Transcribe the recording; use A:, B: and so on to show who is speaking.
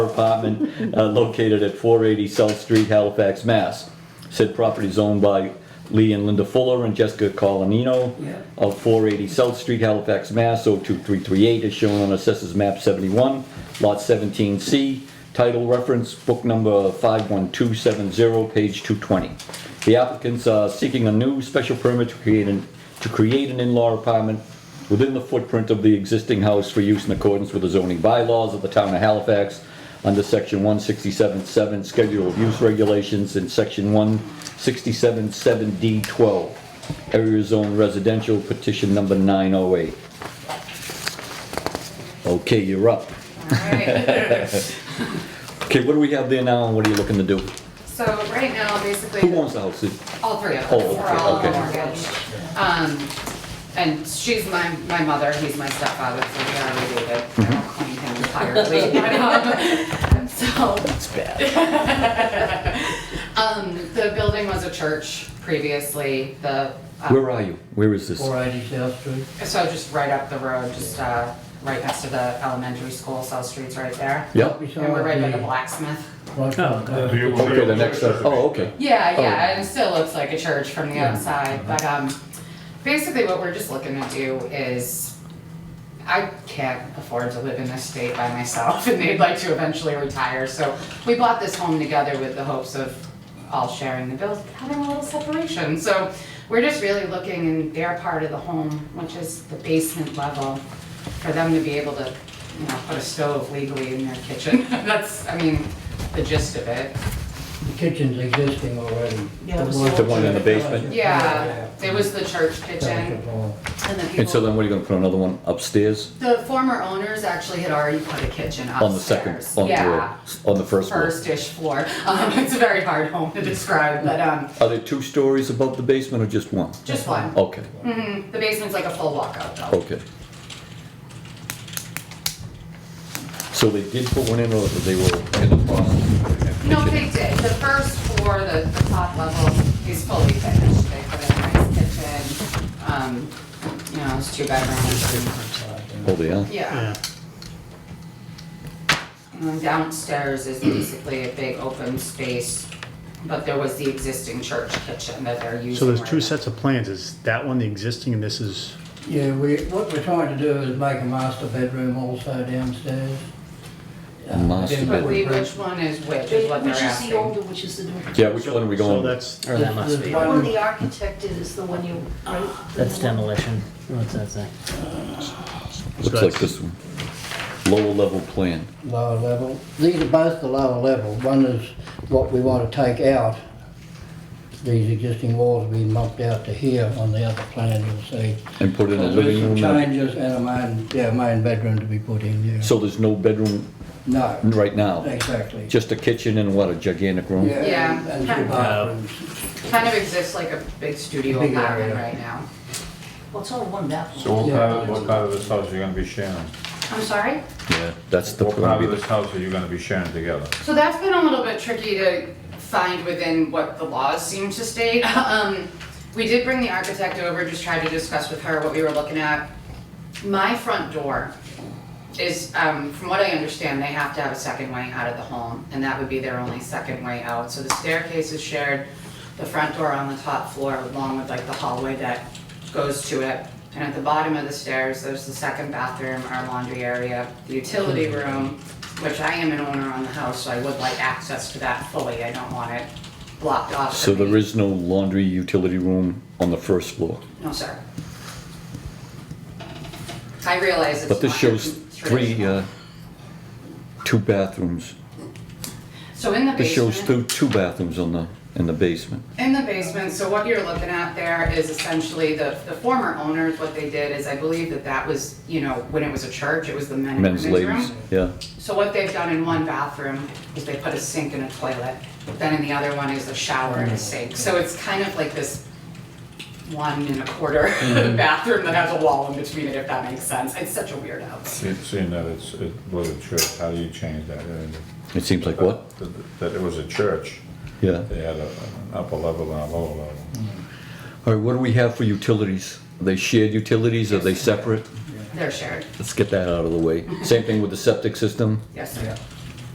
A: apartment uh, located at 480 South Street, Halifax, Mass. Said property is owned by Lee and Linda Fuller and Jessica Colonino
B: Yeah.
A: of 480 South Street, Halifax, Mass. 02338 is shown on Assessors Map 71, Lot 17C, title reference, book number 51270, page 220. The applicants are seeking a new special permit to create an, to create an in-law apartment within the footprint of the existing house for use in accordance with the zoning bylaws of the town of Halifax under section one sixty-seven seven, schedule of use regulations, and section one sixty-seven seven D twelve. Area zone residential petition number nine oh eight. Okay, you're up.
C: Alright,
A: Okay, what do we have there now and what are you looking to do?
C: so right now, basically,
A: Who owns the house?
C: all three of us,
A: Oh,
C: we're
A: okay,
C: all on the
A: okay.
C: mortgage. Um, and she's my, my mother, he's my stepfather, so we are related,
A: Mm-hmm.
C: I don't claim him entirely, but, um, so,
A: It's bad.
C: um, the building was a church previously, the, uh,
A: Where are you? Where is this?
B: Four eighty South Street.
C: so just right up the road, just, uh, right next to the elementary school, South Street's right there.
A: Yep.
C: And we're right by the blacksmith.
D: Oh,
A: Okay, the next, uh, oh, okay.
C: Yeah,
A: Oh.
C: yeah, and it still looks like a church from the outside, but, um, basically what we're just looking to do is, I can't afford to live in this state by myself, and they'd like to eventually retire, so we bought this home together with the hopes of all sharing the bills, having a little separation, so we're just really looking in their part of the home, which is the basement level, for them to be able to, you know, put a stove legally in their kitchen, that's, I mean, the gist of it.
B: The kitchen's existing already.
C: Yeah, the
A: The one in the basement?
C: Yeah, it was the church kitchen
B: Fellowship Hall.
C: and the
A: And so
C: people.
A: then what are you gonna put another one upstairs
C: The former owners actually had already put a kitchen upstairs.
A: on the second, on
C: Yeah,
A: the, on the first floor?
C: first-ish floor. Um, it's a very hard home to describe, but, um,
A: Are there two stories above the basement or just one?
C: just one.
A: Okay,
C: Mhm, The basement's like a full walkout though.
A: okay. So they did put one in or they were in the process?
C: No, they did. The first floor, the, the top level is fully finished. They put in a nice kitchen, um, you know, it's two bedrooms and
A: Oh, they are?
C: Yeah. Um, Downstairs is basically a big open space, but there was the existing church kitchen that they're using.
E: So there's
C: right
E: two
C: now.
E: sets of plans, is that one the existing and this is,
B: Yeah, we, what we're trying to do is make a master bedroom also downstairs. Uh,
A: Master
B: then
C: But we,
B: we're-
C: which one is which, is what they're
F: Which is the
C: asking.
F: older, which is the newer.
A: Yeah, which one are we
E: so
A: going?
E: that's,
D: Or Oh, that must
B: The-
D: be.
B: the
F: Well,
B: one-
F: the architect is the one you, right?
D: That's demolition. What's that say?
A: Looks like this one. Lower level plan.
B: lower level. These are both the lower level. One is what we want to take out. These existing walls being mucked out to here on the other plan, you'll see.
A: And put in a
B: There's
A: living
B: some
A: room? and-
B: changes and a main, yeah, main bedroom to be put in, yeah.
A: So there's no bedroom
B: No,
A: right now?
B: exactly.
A: Just a kitchen and what, a gigantic room?
C: Yeah.
B: and- And two bathrooms.
C: Kind of exists like a big studio
B: Big
C: apartment
B: area.
C: right now.
F: Well, it's all one bathroom.
G: So what part of, what part of this house are you gonna be sharing?
C: I'm sorry?
A: Yeah, that's the,
G: What part
A: gonna
G: of
A: be
G: this house are you gonna be sharing together?
C: So that's been a little bit tricky to find within what the laws seem to state. Um, we did bring the architect over, just tried to discuss with her what we were looking at. My front door is, um, from what I understand, they have to have a second way out of the home, and that would be their only second way out. So the staircase is shared, the front door on the top floor, along with like the hallway that goes to it. And at the bottom of the stairs, there's the second bathroom, our laundry area, the utility room, which I am an owner on the house, so I would like access to that fully. I don't want it blocked off.
A: the,
C: for
A: so there
C: me.
A: is no laundry utility room on the first floor?
C: No, sir. I realize it's
A: But this
C: not
A: shows three,
C: traditional.
A: uh, two bathrooms.
C: So in the
A: This shows
C: basement,
A: two, two bathrooms on the, in the basement.
C: in the basement, so what you're looking at there is essentially the, the former owners, what they did is I believe that that was, you know, when it was a church, it was the men and
A: Men's,
C: women's
A: ladies,
C: room.
A: yeah.
C: So what they've done in one bathroom is they put a sink and a toilet, then in the other one is a shower and a sink. So it's kind of like this one and a quarter
A: Mm-hmm.
C: bathroom that has a wall in between it, if that makes sense. It's such a weird house.
G: Se- Seeing that it's, it was a church, how do you change that? Uh,
A: It seems like what?
G: that- That it was a church,
A: Yeah.
G: they had a- an upper level and a lower level.
A: All right, what do we have for utilities? Are they shared utilities? Are they separate?
C: They're shared,
A: Let's get that out of the way. Same thing with the septic system?
C: yes, sir.